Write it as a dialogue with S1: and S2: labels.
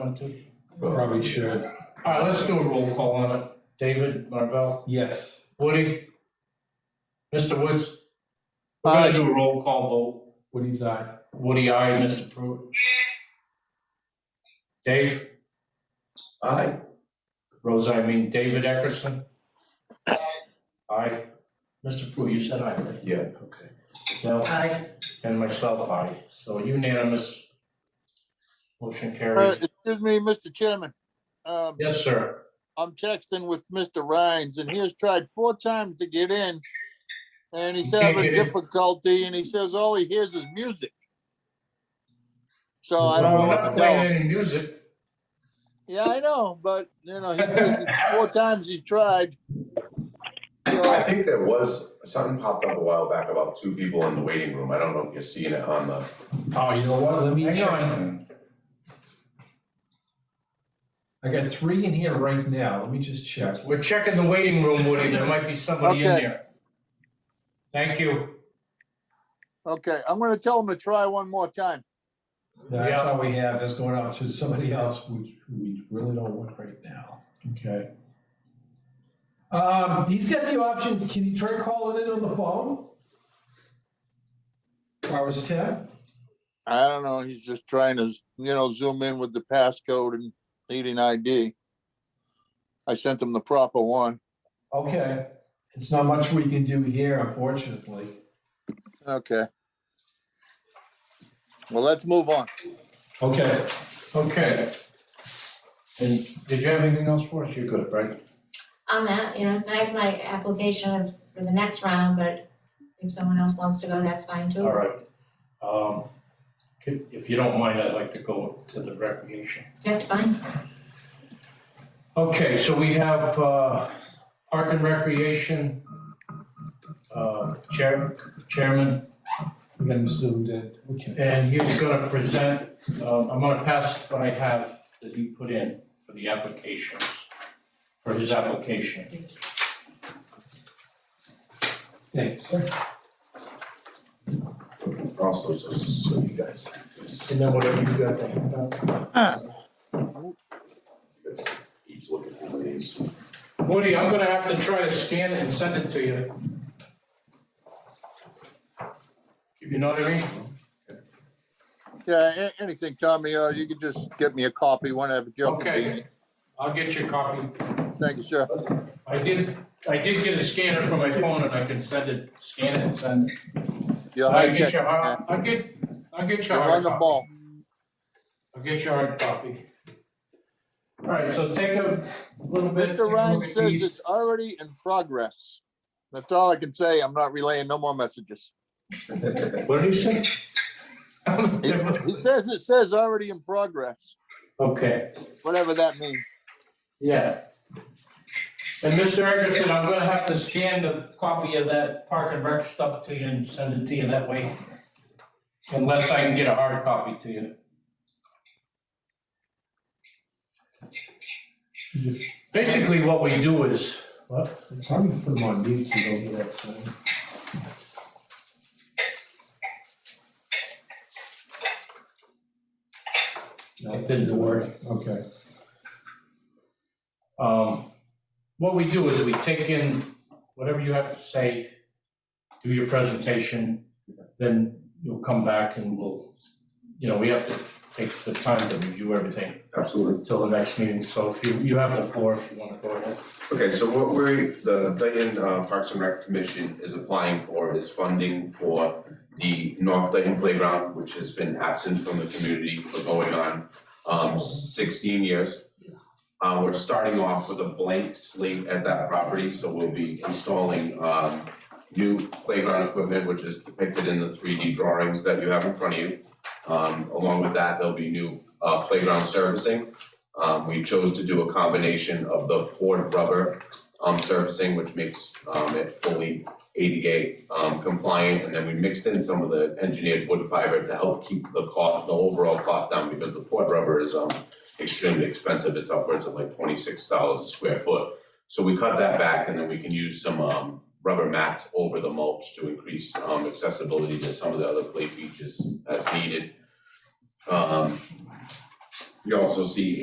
S1: want to?
S2: Probably should.
S1: All right, let's do a roll call on it. David, Marvell,
S2: Yes.
S1: Woody, Mr. Woods. We're
S3: Aye.
S1: gonna do a roll call
S2: Woody's eye.
S1: vote. Woody, aye, Mr. Pruitt. Dave,
S2: Aye.
S1: Rose, I mean, David Eckerson. Aye. Mr. Pruitt, you said aye, right?
S2: Yeah, okay.
S1: No,
S4: Aye.
S1: and myself, aye. So unanimous. Motion
S3: Uh,
S1: carries.
S3: Excuse me, Mr. Chairman. Um,
S1: Yes, sir.
S3: I'm texting with Mr. Rhines and he has tried four times to get in. And he's
S1: Can't
S3: having
S1: get in.
S3: difficulty and he says all he hears is music. So I don't know
S1: We're
S3: what
S1: not
S3: to tell him.
S1: playing any music.
S3: Yeah, I know, but you know, he says four times he's tried.
S5: I
S3: So,
S5: think there was, something popped up a while back about two people in the waiting room. I don't know if you're seeing it on the.
S2: Oh, you know what? Let me
S1: Hang
S2: check.
S1: on.
S2: I got three in here right now. Let me just check.
S1: We're checking the waiting room, Woody. There might be somebody in
S3: Okay.
S1: there. Thank you.
S3: okay, I'm gonna tell him to try one more time.
S2: That's
S1: Yeah.
S2: all we have. That's going out to somebody else, which we really don't want right now. Okay. Um, he's got the option. Can you try calling in on the phone? Hours ten?
S3: I don't know, he's just trying to, you know, zoom in with the passcode and needing ID. I sent him the proper one.
S2: Okay. It's not much we can do here, unfortunately.
S3: Okay. Well, let's move on.
S2: Okay.
S1: Okay. And did you have anything else for us? You're good, right?
S4: I'm at, you know, I have my application for the next round, but if someone else wants to go, that's fine too.
S1: All right. Um, could- If you don't mind, I'd like to go to the recreation.
S4: That's fine.
S1: Okay, so we have uh, Park and Recreation uh, Chair Chairman,
S2: We got him zoomed in. Okay.
S1: and he's going to present, uh, I'm going to pass what I have that he put in for the applications, for his application.
S2: Thanks.
S5: Also, so, so you guys, this,
S1: And then whatever you got there.
S5: you guys each look at one of these.
S1: Woody, I'm gonna have to try to scan it and send it to you. You know what I mean?
S3: Yeah, a- anything, Tommy, uh, you could just get me a copy whenever. Joe can be.
S1: Okay, I'll get you a copy.
S3: Thank you, sir.
S1: I did, I did get a scanner for my phone and I can send it, scan it and send it.
S3: You're
S1: I'll
S3: high
S1: get
S3: tech.
S1: you a hard,
S3: man.
S1: I'll get, I'll get you a
S3: You're
S1: hard
S3: on the
S1: copy.
S3: ball.
S1: I'll get you a hard copy. All right, so take a little bit. take a
S3: Mr. Ryan
S1: look at
S3: says
S1: these.
S3: it's already in progress. That's all I can say. I'm not relaying no more messages.
S1: What did he say?
S3: He he says, it says already in progress,
S1: Okay.
S3: whatever that means.
S1: Yeah. And Mr. Eckerson, I'm gonna have to scan the copy of that Park and Rec stuff to you and send it to you that way. Unless I can get a hard copy to you. Basically, what we do is,
S2: What? I'm trying to put them on mute so they don't get upset. No,
S1: It didn't work.
S2: Okay.
S1: um, what we do is we take in whatever you have to say, do your presentation, then you'll come back and we'll, you know, we have to take the time to review everything.
S5: Absolutely.
S1: till the next meeting, so if you, you have the floor if you wanna go ahead.
S5: Okay, so what we're, the Dayton uh, Parks and Rec Commission is applying for is funding for the North Dayton Playground, which has been absent from the community for going on um sixteen years. Uh, we're starting off with a blank slate at that property, so we'll be installing um new playground equipment, which is depicted in the three D drawings that you have in front of you. Um, along with that, there'll be new uh playground servicing. Um, we chose to do a combination of the poured rubber, um, surfacing, which makes, um, it fully ADA, um, compliant. And then we mixed in some of the engineered wood fiber to help keep the cost, the overall cost down because the poured rubber is, um, extremely expensive. It's upwards of like twenty-six dollars a square foot. So we cut that back and then we can use some, um, rubber mats over the mulch to increase, um, accessibility to some of the other play features as needed. Um, You also see